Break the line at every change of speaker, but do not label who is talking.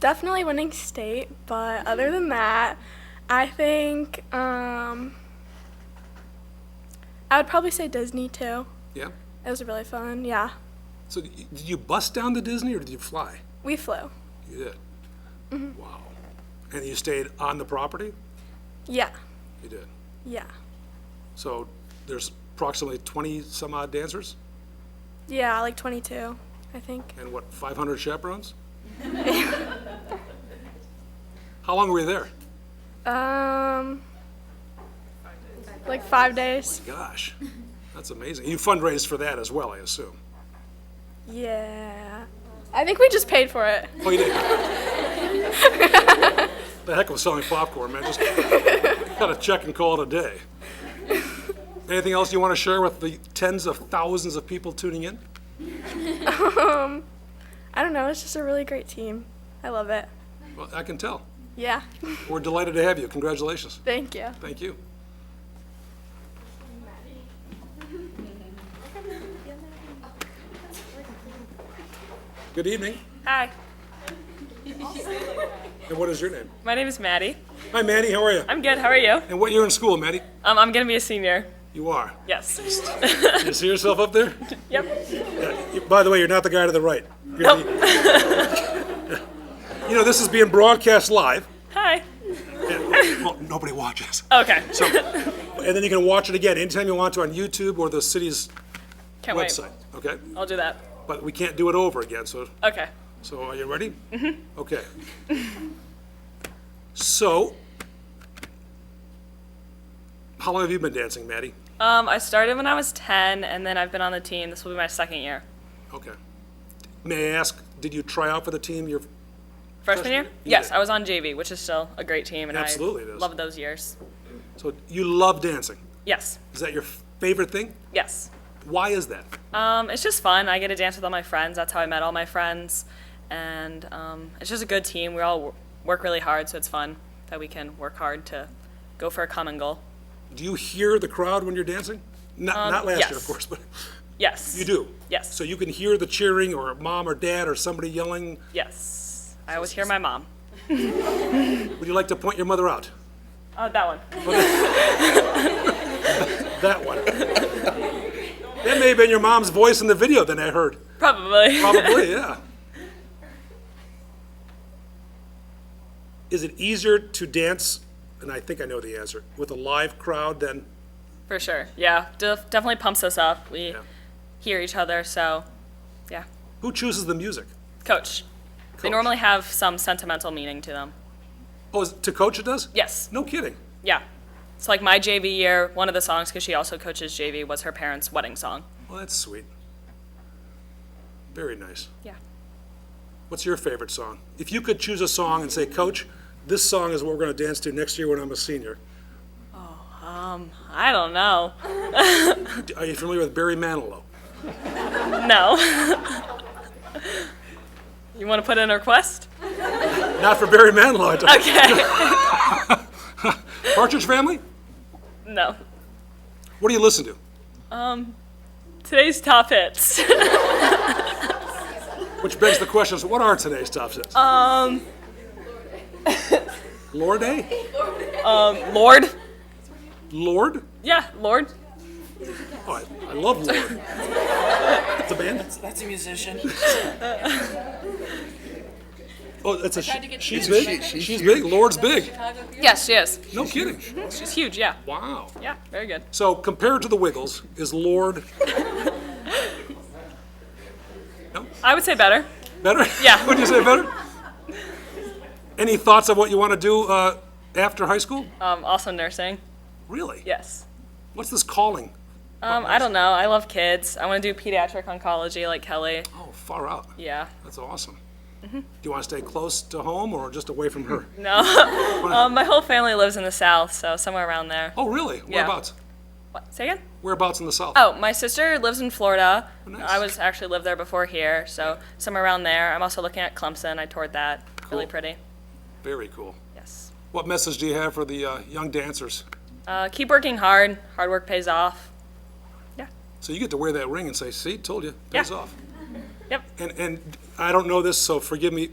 definitely winning state, but other than that, I think um, I would probably say Disney too.
Yeah.
It was really fun. Yeah,
So y- did you bus down to Disney or did you fly?
we flew.
You did. Wow. And you stayed on the property?
Yeah,
You did.
yeah,
So there's approximately 20 some odd dancers
yeah. Like 22, I think.
and what, 500 chaperones? How long were you there?
Um, like five days.
Gosh, that's amazing. You fundraised for that as well, I assume.
Yeah, I think we just paid for it.
Oh, you did. the heck with selling popcorn, man. Just got a check and call it a day. Anything else you want to share with the tens of thousands of people tuning in?
I don't know. It's just a really great team. I love it.
Well, I can tell.
Yeah.
We're delighted to have you. Congratulations.
Thank you.
Thank you. Good evening.
Hi,
And what is your name?
my name is Maddie.
Hi, Maddie. How are you?
I'm good. How are you?
And what year in school, Maddie?
Um, I'm gonna be a senior.
You are.
Yes.
You see yourself up there?
yep.
You- By the way, you're not the guy to the right. You're the- you know, this is being broadcast live.
Hi.
Well, nobody watches.
Okay.
So, and then you can watch it again anytime you want to on YouTube or the city's
Can't
website. Okay?
wait. I'll do that.
But we can't do it over again, so
Okay.
So are you ready? Mm-hmm. Okay. So, how long have you been dancing, Maddie?
Um, I started when I was 10, and then I've been on the team. This will be my second year.
Okay. May I ask, did you try out for the team? Your
Freshman year?
You
Yes,
did.
I was on JV, which is still a great team, and
Absolutely it
I
is.
love those years.
so you love dancing.
Yes.
Is that your favorite thing?
Yes.
Why is that?
Um, it's just fun. I get to dance with all my friends. That's how I met all my friends, and um, it's just a good team. We all w- work really hard, so it's fun that we can work hard to go for a common goal.
Do you hear the crowd when you're dancing? Not, not last year, of
Um, yes.
course, but
Yes.
you do.
Yes.
So you can hear the cheering, or mom or dad, or somebody yelling.
Yes. I always hear my mom.
Would you like to point your mother out?
Uh, that one.
That one. that may have been your mom's voice in the video. Then I heard.
Probably.
Probably, yeah. Is it easier to dance, and I think I know the answer, with a live crowd than,
For sure. Yeah. Def- definitely pumps us up. We
Yeah.
hear each other. So, yeah.
who chooses the music?
Coach. They
Coach.
normally have some sentimental meaning to them.
Oh, is, to coach it does?
Yes.
No kidding.
Yeah. It's like my JV year, one of the songs, because she also coaches JV, was her parents' wedding song.
Well, that's sweet. Very nice.
Yeah.
What's your favorite song? If you could choose a song and say, Coach, this song is what we're going to dance to next year when I'm a senior.
Um, I don't know.
D- Are you familiar with Barry Manilow?
No. you want to put in a request?
Not for Barry Manilow. I don't-
Okay.
Partridge Family?
no.
What do you listen to?
Today's top hits.
Which begs the question, so what are today's top six? Um. Lord A?
Lord.
Lord?
Yeah, Lord.
Oh, I, I love Lord. It's a band?
That's a musician.
Oh, it's a, she-
get
she's big? She's big, Lord's big.
Yes, she is.
No kidding.
She's huge, yeah.
Wow.
Yeah, very good.
So compared to the Wiggles, is Lord
I would say better.
better?
Yeah.
Would you say better? Any thoughts of what you want to do, uh, after high school?
Um, also nursing.
Really?
Yes.
What's this calling?
Um, I don't know. I love kids. I want to do pediatric oncology like Kelly.
Oh, far out.
Yeah.
That's awesome. Mm-hmm. Do you want to stay close to home or just away from her?
Um, my whole family lives in the South, so somewhere around there.
Oh, really? Whereabouts?
What? Say again?
Whereabouts in the South?
Oh, my sister lives in Florida.
nice.
I was actually lived there before here, so somewhere around there. I'm also looking at Clemson. I toured that. Really
Cool.
pretty.
Very cool.
Yes.
What message do you have for the uh, young dancers?
Uh, keep working hard. Hard work pays off. Yeah.
So you get to wear that ring and say, "See, told you, pays
Yeah.
off."
Yep.
And and I don't know this, so forgive me.